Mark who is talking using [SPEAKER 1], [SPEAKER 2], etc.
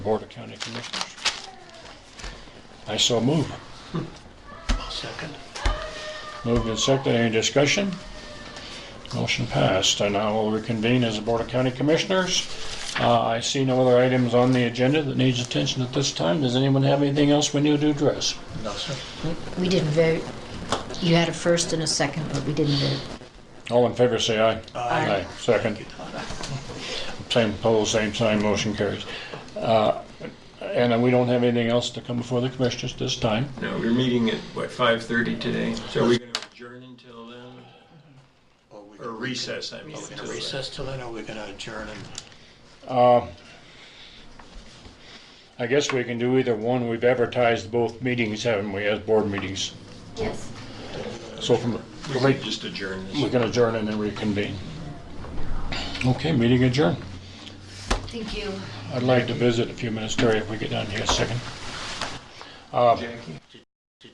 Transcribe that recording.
[SPEAKER 1] Board of County Commissioners. I so move.
[SPEAKER 2] Second.
[SPEAKER 1] Moved and seconded. Any discussion? Motion passed. I now will reconvene as the Board of County Commissioners. Uh, I see no other items on the agenda that needs attention at this time. Does anyone have anything else we need to address?
[SPEAKER 2] No, sir.
[SPEAKER 3] We didn't vote. You had a first and a second, but we didn't vote.
[SPEAKER 1] All in favor, say aye.
[SPEAKER 3] Aye.
[SPEAKER 1] Second. Same opposed, same sign, motion carries. Uh, And we don't have anything else to come before the commissioners this time.
[SPEAKER 4] No, we're meeting at, what, 5:30 today? So are we going to adjourn until then?
[SPEAKER 2] Or we
[SPEAKER 4] Or recess, I mean.
[SPEAKER 2] Are we
[SPEAKER 4] till
[SPEAKER 2] gonna
[SPEAKER 4] then?
[SPEAKER 2] recess till then, or are we gonna adjourn and?
[SPEAKER 1] I guess we can do either one. We've advertised both meetings, haven't we, as board meetings?
[SPEAKER 3] Yes.
[SPEAKER 1] So from,
[SPEAKER 4] We could just adjourn
[SPEAKER 1] we
[SPEAKER 4] this.
[SPEAKER 1] can adjourn and then reconvene. Okay, meeting adjourned.
[SPEAKER 3] Thank you.
[SPEAKER 1] I'd like to visit a few minutes, Terry, if we get down here a second.
[SPEAKER 4] Jackie?